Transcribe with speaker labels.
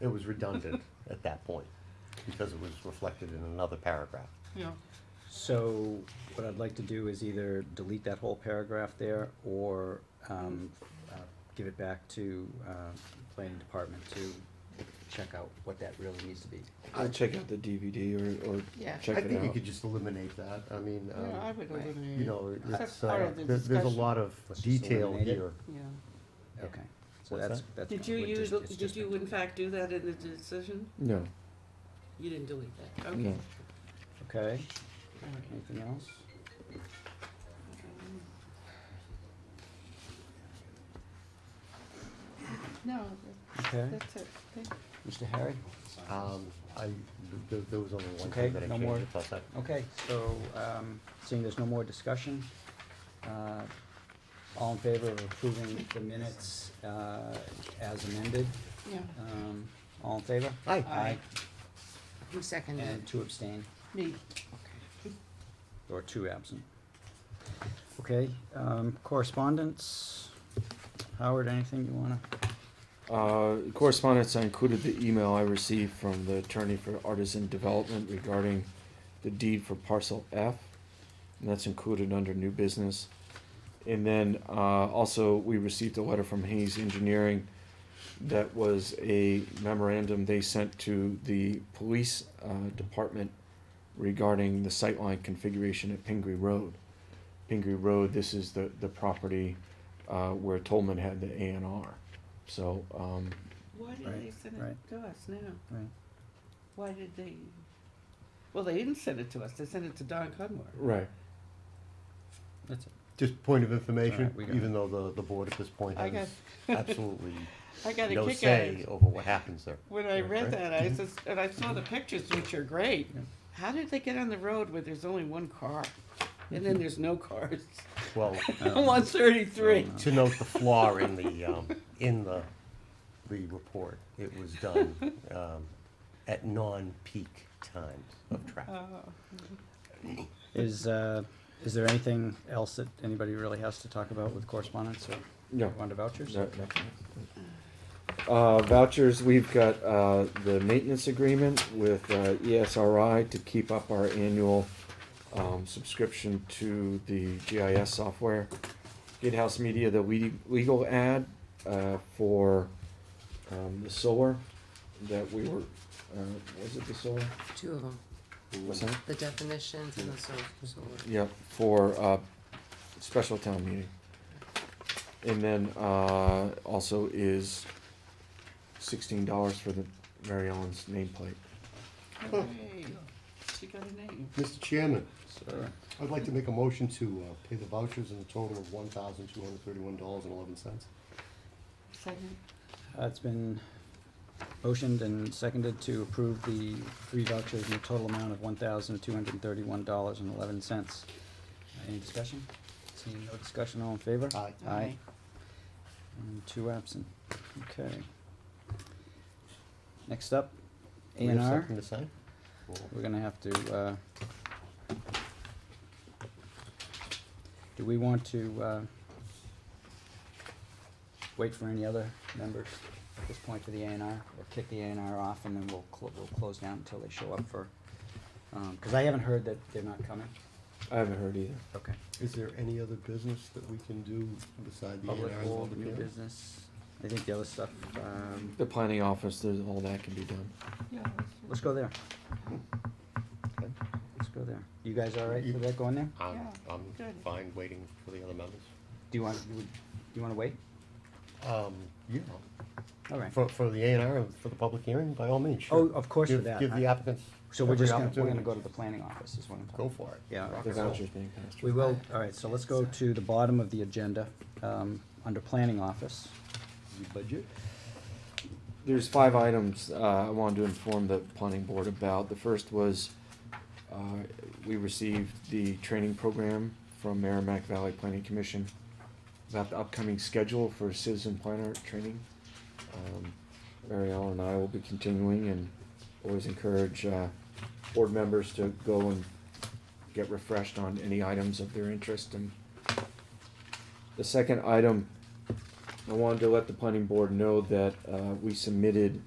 Speaker 1: It was redundant at that point, because it was reflected in another paragraph.
Speaker 2: Yeah.
Speaker 3: So what I'd like to do is either delete that whole paragraph there or um, uh, give it back to uh, planning department to check out what that really needs to be.
Speaker 4: I'll check out the DVD or, or
Speaker 2: Yeah.
Speaker 4: check
Speaker 1: I
Speaker 4: it
Speaker 1: think you
Speaker 4: out.
Speaker 1: could just eliminate that, I mean, um,
Speaker 2: Yeah, I would
Speaker 3: Right.
Speaker 2: eliminate.
Speaker 1: you know,
Speaker 2: That's
Speaker 1: it's,
Speaker 2: part
Speaker 1: uh,
Speaker 2: of the
Speaker 1: there- there's a
Speaker 2: discussion.
Speaker 1: lot of
Speaker 3: Let's just
Speaker 1: detail
Speaker 3: eliminate it.
Speaker 1: here.
Speaker 2: Yeah.
Speaker 3: Okay, so
Speaker 1: What's
Speaker 3: that's,
Speaker 1: that?
Speaker 3: that's.
Speaker 5: Did you
Speaker 3: we're
Speaker 5: use,
Speaker 3: just- it's
Speaker 5: did
Speaker 3: just
Speaker 5: you
Speaker 3: been
Speaker 5: in fact do that in the decision?
Speaker 4: No,
Speaker 5: You didn't delete that, okay.
Speaker 4: no.
Speaker 3: deleted. Okay,
Speaker 2: All right.
Speaker 3: anything else?
Speaker 2: No,
Speaker 3: Okay,
Speaker 2: that- that's it. Thank
Speaker 3: Mr. Harry?
Speaker 1: Um, I, there, there was only one
Speaker 3: Okay,
Speaker 1: thing that I
Speaker 3: no more.
Speaker 1: changed, plus I,
Speaker 3: Okay, so um, seeing there's no more discussion, uh, all in favor of approving the minutes uh, as amended?
Speaker 2: Yeah.
Speaker 3: Um, All in favor?
Speaker 1: Aye.
Speaker 3: Aye.
Speaker 5: Who seconded?
Speaker 3: And two abstain,
Speaker 2: Me.
Speaker 3: or two absent. Okay, um, correspondence, Howard, anything you wanna?
Speaker 4: Uh, correspondence, I included the email I received from the attorney for Artisan Development regarding the deed for parcel F. And that's included under new business. And then, uh, also, we received a letter from Hayes Engineering that was a memorandum they sent to the police, uh, department regarding the sightline configuration at Pingree Road. Pingree Road, this is the, the property, uh, where Tolman had the A and R. So, um,
Speaker 2: Why did
Speaker 3: Right,
Speaker 2: they send it
Speaker 3: right.
Speaker 2: to us now?
Speaker 3: Right.
Speaker 2: Why did they? Well, they didn't send it to us. They sent it to Don Cudmore.
Speaker 4: right.
Speaker 3: That's it.
Speaker 1: just point of
Speaker 3: All
Speaker 1: information,
Speaker 3: right, we got
Speaker 1: even though the, the board at this point
Speaker 2: I
Speaker 1: has absolutely
Speaker 2: I got a
Speaker 1: no
Speaker 2: kick out
Speaker 1: say
Speaker 2: of it.
Speaker 1: over what happens there.
Speaker 2: When I
Speaker 1: Yeah,
Speaker 2: read
Speaker 1: right. Mm-hmm.
Speaker 2: that, I says, and I saw the pictures, which are great.
Speaker 3: Yeah.
Speaker 2: How did they get on the road where there's only one car? And
Speaker 1: Mm-hmm.
Speaker 2: then there's no cars.
Speaker 1: Well,
Speaker 2: One thirty-three.
Speaker 1: to note the flaw in the, um, in the, the report, it was done, um, at non-peak times of traffic.
Speaker 3: Is, uh, is there anything else that anybody really has to talk about with correspondence or
Speaker 4: No.
Speaker 3: on to vouchers?
Speaker 4: No, no. Uh, vouchers, we've got, uh, the maintenance agreement with, uh, ESRI to keep up our annual, um, subscription to the GIS software. Gatehouse Media, the le- legal ad, uh, for, um, the solar that we were, uh, was it the solar?
Speaker 5: Two of them,
Speaker 4: What's that?
Speaker 5: the definitions and the so, so-
Speaker 4: Yep, for, uh, special town meeting. And then, uh, also is sixteen dollars for the Mary Ellen's nameplate.
Speaker 2: Hooray. Oh, She got a name.
Speaker 6: Mr. Chairman,
Speaker 3: Sure.
Speaker 6: I'd like to make a motion to uh, pay the vouchers in a total of one thousand two hundred thirty-one dollars and eleven cents.
Speaker 2: Second.
Speaker 3: Uh, It's been motioned and seconded to approve the three vouchers in a total amount of one thousand two hundred and thirty-one dollars and eleven cents. Any discussion? Seeing no discussion, all in favor?
Speaker 6: Aye.
Speaker 3: Aye. And two absent. Okay. Next up,
Speaker 1: We
Speaker 3: A
Speaker 1: have
Speaker 3: and R.
Speaker 1: something to sign?
Speaker 3: We're gonna have to, uh, do we want to, uh, wait for any other members at this point for the A and R? Or kick the A and R off and then we'll clo- we'll close down until they show up for, um 'cause cause I haven't heard that they're not coming.
Speaker 4: I haven't heard either.
Speaker 3: Okay.
Speaker 6: Is there any other business that we can do beside the A
Speaker 3: Public
Speaker 6: and
Speaker 3: hold, new
Speaker 6: R's?
Speaker 3: business, I think the other stuff, um,
Speaker 4: The planning office, there's, all that can be done.
Speaker 2: Yeah.
Speaker 3: let's go there. Let's go there. You guys all right
Speaker 1: You-
Speaker 3: with that going there?
Speaker 1: I'm,
Speaker 2: Yeah,
Speaker 1: I'm
Speaker 2: good.
Speaker 1: fine waiting for the other members.
Speaker 3: Do you want, you would, you wanna wait?
Speaker 1: Um, yeah,
Speaker 3: All right.
Speaker 1: for, for the A and R, for the public hearing, by all means,
Speaker 3: Oh,
Speaker 1: sure.
Speaker 3: of course for
Speaker 1: Give-
Speaker 3: that.
Speaker 1: Give the
Speaker 3: I-
Speaker 1: applicants
Speaker 3: So we're
Speaker 1: every
Speaker 3: just gonna, we're
Speaker 1: opportunity.
Speaker 3: gonna go to the planning office is what I'm
Speaker 1: Go
Speaker 3: talking.
Speaker 1: for it.
Speaker 3: Yeah,
Speaker 1: Rock
Speaker 4: The
Speaker 1: and roll.
Speaker 4: vouchers being passed.
Speaker 3: We will, all right, so let's go to the bottom of the agenda, um, under planning office.
Speaker 1: The budget?
Speaker 4: There's five items, uh, I wanted to inform the planning board about. The first was, uh, we received the training program from Merrimack Valley Planning Commission about the upcoming schedule for citizen planner training. Um, Mary Ellen and I will be continuing and always encourage, uh, board members to go and get refreshed on any items of their interest and the second item, I wanted to let the planning board know that, uh, we submitted